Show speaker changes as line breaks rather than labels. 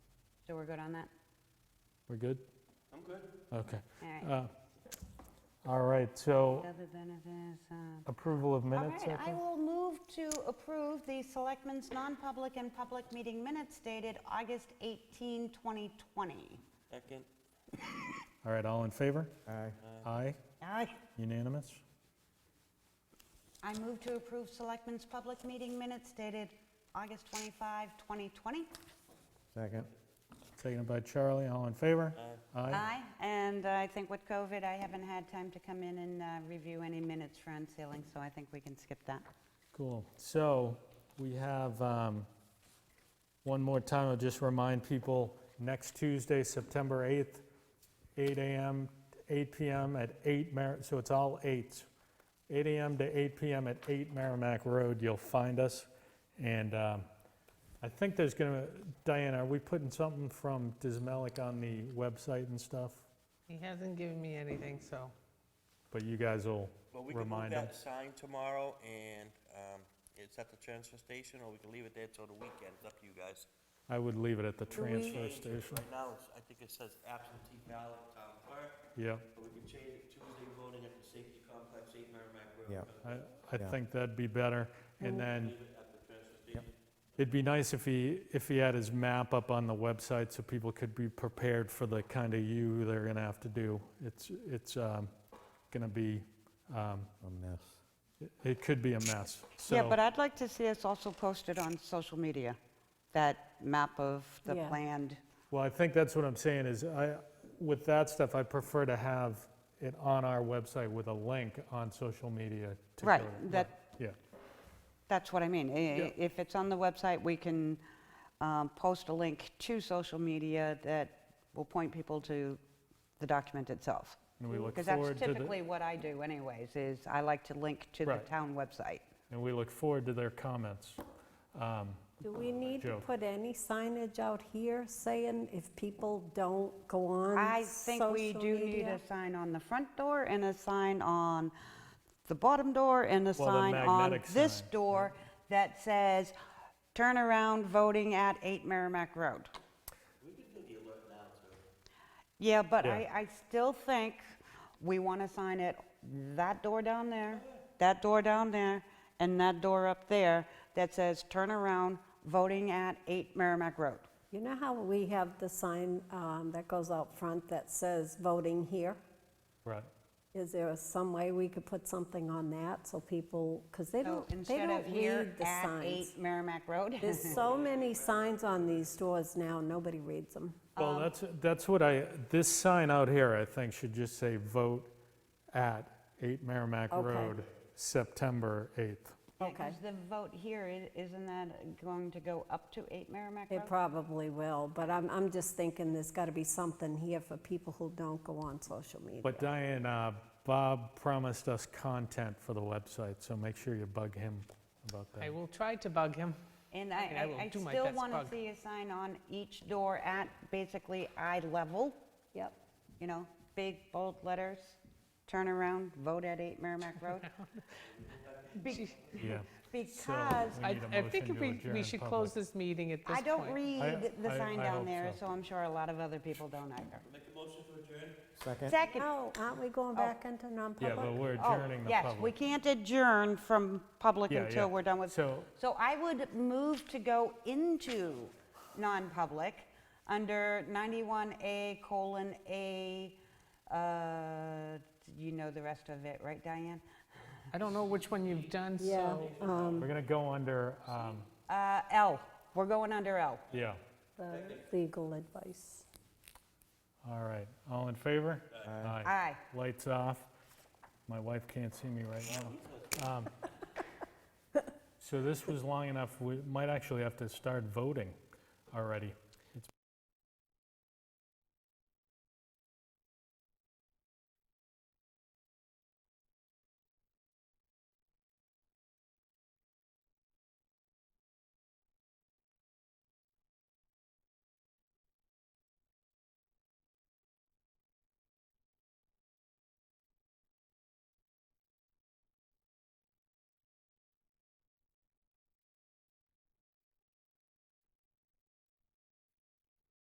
So we're good on that?
We're good?
I'm good.
Okay.
All right.
Uh, All right, so
Other benefits, uh,
approval of
All
minutes, I
right, I
think?
will move to approve the Selectmen's non-public and public meeting minutes dated August 18, 2020.
Second,
All right, all in favor?
Aye.
Aye,
Aye.
unanimous?
I move to approve Selectmen's public meeting minutes dated August 25, 2020.
Second.
Taken by Charlie, all in favor? Aye.
Aye, and I think with COVID, I haven't had time to come in and uh, review any minutes for unsealing, so I think we can skip that.
Cool. So we have, um, one more time, I'll just remind people, next Tuesday, September 8th, 8 AM, 8 PM at 8 Mer, so it's all 8. 8 AM to 8 PM at 8 Merrimack Road, you'll find us. And um, I think there's gonna, Diana, are we putting something from Dismelik on the website and stuff?
He hasn't given me anything, so.
But you guys will
Well, we can move
remind them.
that sign tomorrow and um, it's at the transfer station or we can leave it there till the weekend. It's up to you guys.
I would leave it at the
we-
transfer
Change it.
station.
Right now, it's- I think it says absentee ballot town clerk,
Yeah,
but we can change it Tuesday voting at the safety complex, eight Merrimack Road.
Yeah.
I, I
Yeah.
think that'd be better. And then
Leave it at the transfer station.
It'd be nice if he, if he had his map up on the website so people could be prepared for the kind of U they're gonna have to do. It's, it's um, gonna be, um,
A mess.
it- it could be a mess.
Yeah,
So
but I'd like to see us also posted on social media, that map of the
Yeah.
planned.
Well, I think that's what I'm saying is I, with that stuff, I prefer to have it on our website with a link on social media to
Right,
go to-
that-
Yeah,
That's what I mean. I-
Yeah.
If it's on the website, we can um, post a link to social media that will point people to the document itself.
and we look
Because Mm, that's
forward to the,
typically what I do anyways, is I like to link to the
Right.
town website.
and we look forward to their comments. Um,
Do we need to
Joe.
put any signage out here saying if people don't go
I
on
think
social
we do need
media?
a sign on the front door and a sign on the bottom door and a
the
sign on
magnetic
this
sign, yeah.
door that says, turn around voting at 8 Merrimack Road. We could do the alert now, too. Yeah, but I,
Yeah.
I still think we want to sign it, that door down there, that door down there, and that door up there that says, turn around voting at 8 Merrimack Road.
You know how we have the sign um, that goes out front that says voting here?
Right,
Is there some way we could put something on that so people, because they
So
don't, they
instead
don't
of here
read the
at 8
signs.
Merrimack Road.
There's so many signs on these doors now, nobody reads them.
Well,
Um,
that's, that's what I, this sign out here, I think, should just say vote at 8 Merrimack
Okay.
Road, September 8th.
Okay,
Because the vote here, i- isn't that going to go up to 8 Merrimack
it
Road?
probably will, but I'm, I'm just thinking there's got to be something here for people who don't go on social media.
But Diane, uh, Bob promised us content for the website, so make sure you bug him about
I
that.
will try to bug him.
And
Okay, I will
I- I, I
do my
still
best,
want to
Bug.
see a sign on each door at basically eye level,
Yep.
you know, big bold letters, turn around, vote at 8 Merrimack Road. Be-
Yeah. So
Because
we
I
need a
I
motion
think if
to
we we
adjourn
should
public.
close this meeting at this point.
I don't read the
I-
sign
I
down
hope
there,
so.
so I'm sure a lot of other people don't either.
Make a motion to adjourn?
Second?
Second,
No, aren't we going back into
oh. Yeah, but
non-public?
we're
oh,
adjourning the
yes, we
public.
can't adjourn from public
Yeah, yeah.
until we're done with
So,
So I would move to go into non-public under 91A colon A, uh, you know the rest of it, right, Diane?
I don't know which one you've done,
Yeah,
so.
um,
we're gonna go under, um,
Uh, L, we're going under L.
yeah,
the legal advice.
all right. All in favor? Aye.
Aye.
Lights off. My wife can't see me right now. Um, So this was long enough, we might actually have to start voting already.